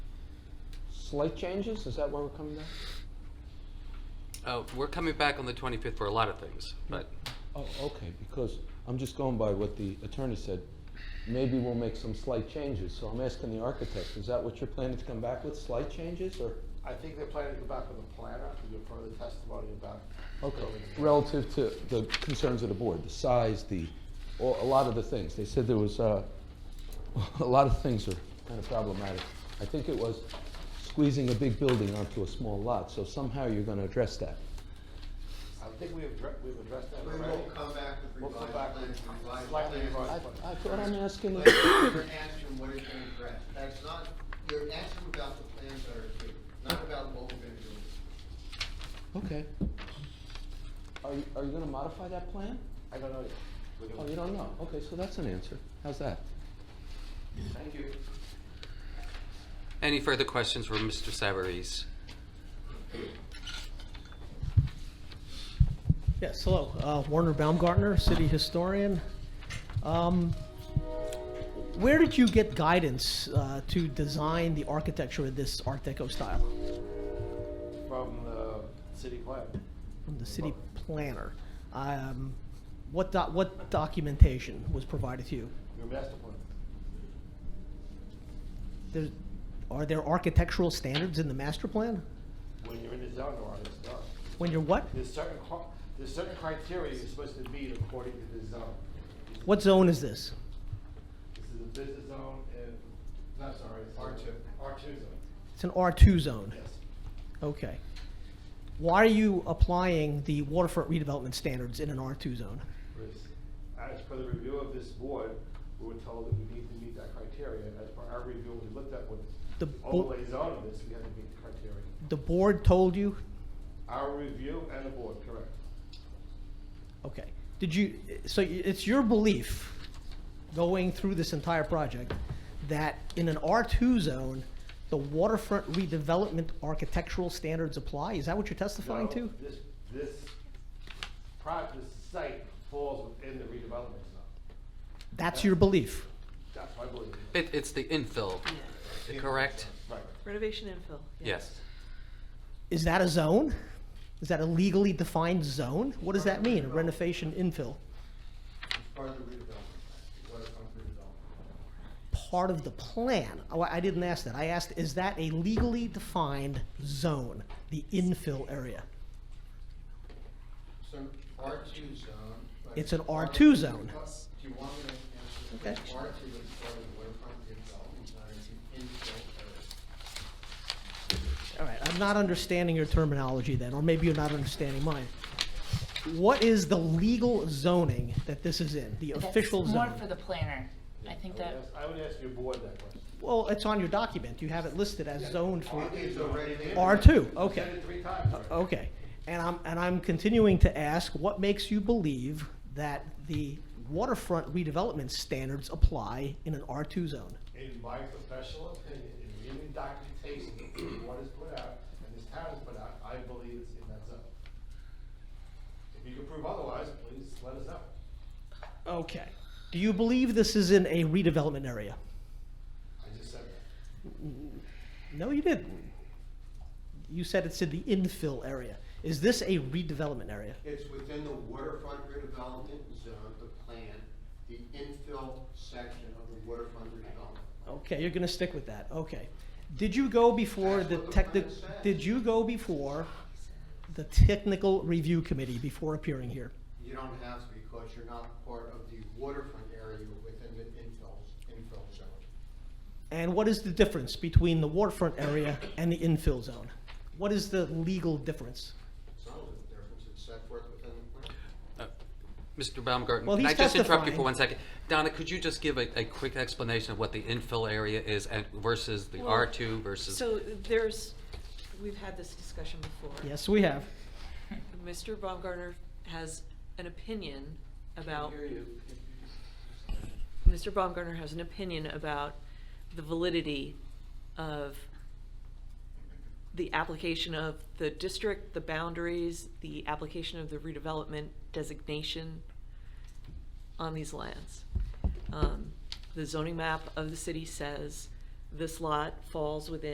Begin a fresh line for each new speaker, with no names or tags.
slight changes? Is that why we're coming back?
Oh, we're coming back on the 25th for a lot of things, but
Oh, okay, because I'm just going by what the attorney said. Maybe we'll make some slight changes, so I'm asking the architect, is that what you're planning to come back with, slight changes, or?
I think they're planning to go back with a planner to give further testimony about.
Okay,
building.
relative to the concerns of the board, the size, the, a a lot of the things. They said there was, uh, a lot of things are kind of problematic. I think it was squeezing a big building onto a small lot, so somehow you're gonna address that.
I think we've, addre- we've addressed that
We
already.
will come back with
We'll come
revised
back
plans,
with
revised
slightly
I,
plans.
revised.
I thought I'm asking,
But
the-
you're asking what is being addressed. That's not, you're asking about the plans that are here, not about what we're gonna do.
okay. Are you, are you gonna modify that plan?
I don't know yet. We're gonna-
Oh, you don't know, okay, so that's an answer. How's that?
Thank you.
any further questions for Mr. Savarese?
Yes, hello, Uh, Warner Baumgartner, city historian. Um, Where did you get guidance uh, to design the architecture of this Art Deco style?
From the city plan.
From the city planner? Um, What doc- what documentation was provided to you?
your master plan.
There's- Are there architectural standards in the master plan?
When you're in the zone, or it's done.
When you're what?
There's certain, cri- there's certain criteria you're supposed to meet according to the zone.
What zone is this?
This is a business zone and, not sorry, it's R two, R two zone,
It's an R2 zone?
yes.
Okay. Why are you applying the waterfront redevelopment standards in an R2 zone?
was, as per the review of this board, we were told that we need to meet that criteria. As per our review, we looked at what
The
the
bo-
overlays on this, we had to meet the criteria.
The board told you?
Our review and the board, correct.
Okay. Did you, so it's your belief, going through this entire project, that in an R2 zone, the waterfront redevelopment architectural standards apply? Is that what you're testifying
No,
to?
This, this project, this site falls within the redevelopment zone.
That's your belief?
That's my belief.
It, it's the infill, correct?
Right.
Renovation infill.
Yes.
Is that a zone? Is that a legally defined zone? What does that mean, a renovation infill?
It's part of the redevelopment, it's part of the redevelopment.
part of the plan. Oh, I I didn't ask that. I asked, is that a legally defined zone, the infill area?
So R two zone. but
It's an
part of
R2
the
zone.
redevelo- Do you want me to
Okay.
answer? R two is part of the waterfront redevelopment, not as an infill area.
All right, I'm not understanding your terminology then, or maybe you're not understanding mine. What is the legal zoning that this is in, the
That's
official
More for
zone?
the planner. I think
I would
that,
ask- I would ask your board that question.
Well, it's on your document. You have it listed as zoned for
It's already there.
R2,
I said
okay.
it three times already.
Okay, and I'm, and I'm continuing to ask, what makes you believe that the waterfront redevelopment standards apply in an R2 zone?
in my professional opinion, in reading documentation that the board has put out and this town has put out, I believe it's in that zone. If you can prove otherwise, please let us know.
Okay. Do you believe this is in a redevelopment area?
I just said that.
No, you didn't. You said it's in the infill area. Is this a redevelopment area?
It's within the waterfront redevelopment zone, the plan, the infill section of the waterfront redevelopment.
Okay, you're gonna stick with that, okay. Did you go before the
That's what the
tech,
plan says.
did you go before the technical review committee before appearing here?
You don't have to because you're not part of the waterfront area, you're within the infill, infill zone.
And what is the difference between the waterfront area and the infill zone? What is the legal difference?
It's not a difference, it's set forth within the plan.
Uh, Mr. Baumgarten,
Well,
can I
he's
just interrupt you for
testifying.
one second? Donna, could you just give a, a quick explanation of what the infill area is and versus the
Well,
R2 versus?
So there's, we've had this discussion before.
Yes, we have.
Mr. Baumgartner has an opinion about. Mr. Baumgartner has an opinion about the validity of the application of the district, the boundaries, the application of the redevelopment designation on these lands. Um, The zoning map of the city says this lot falls within.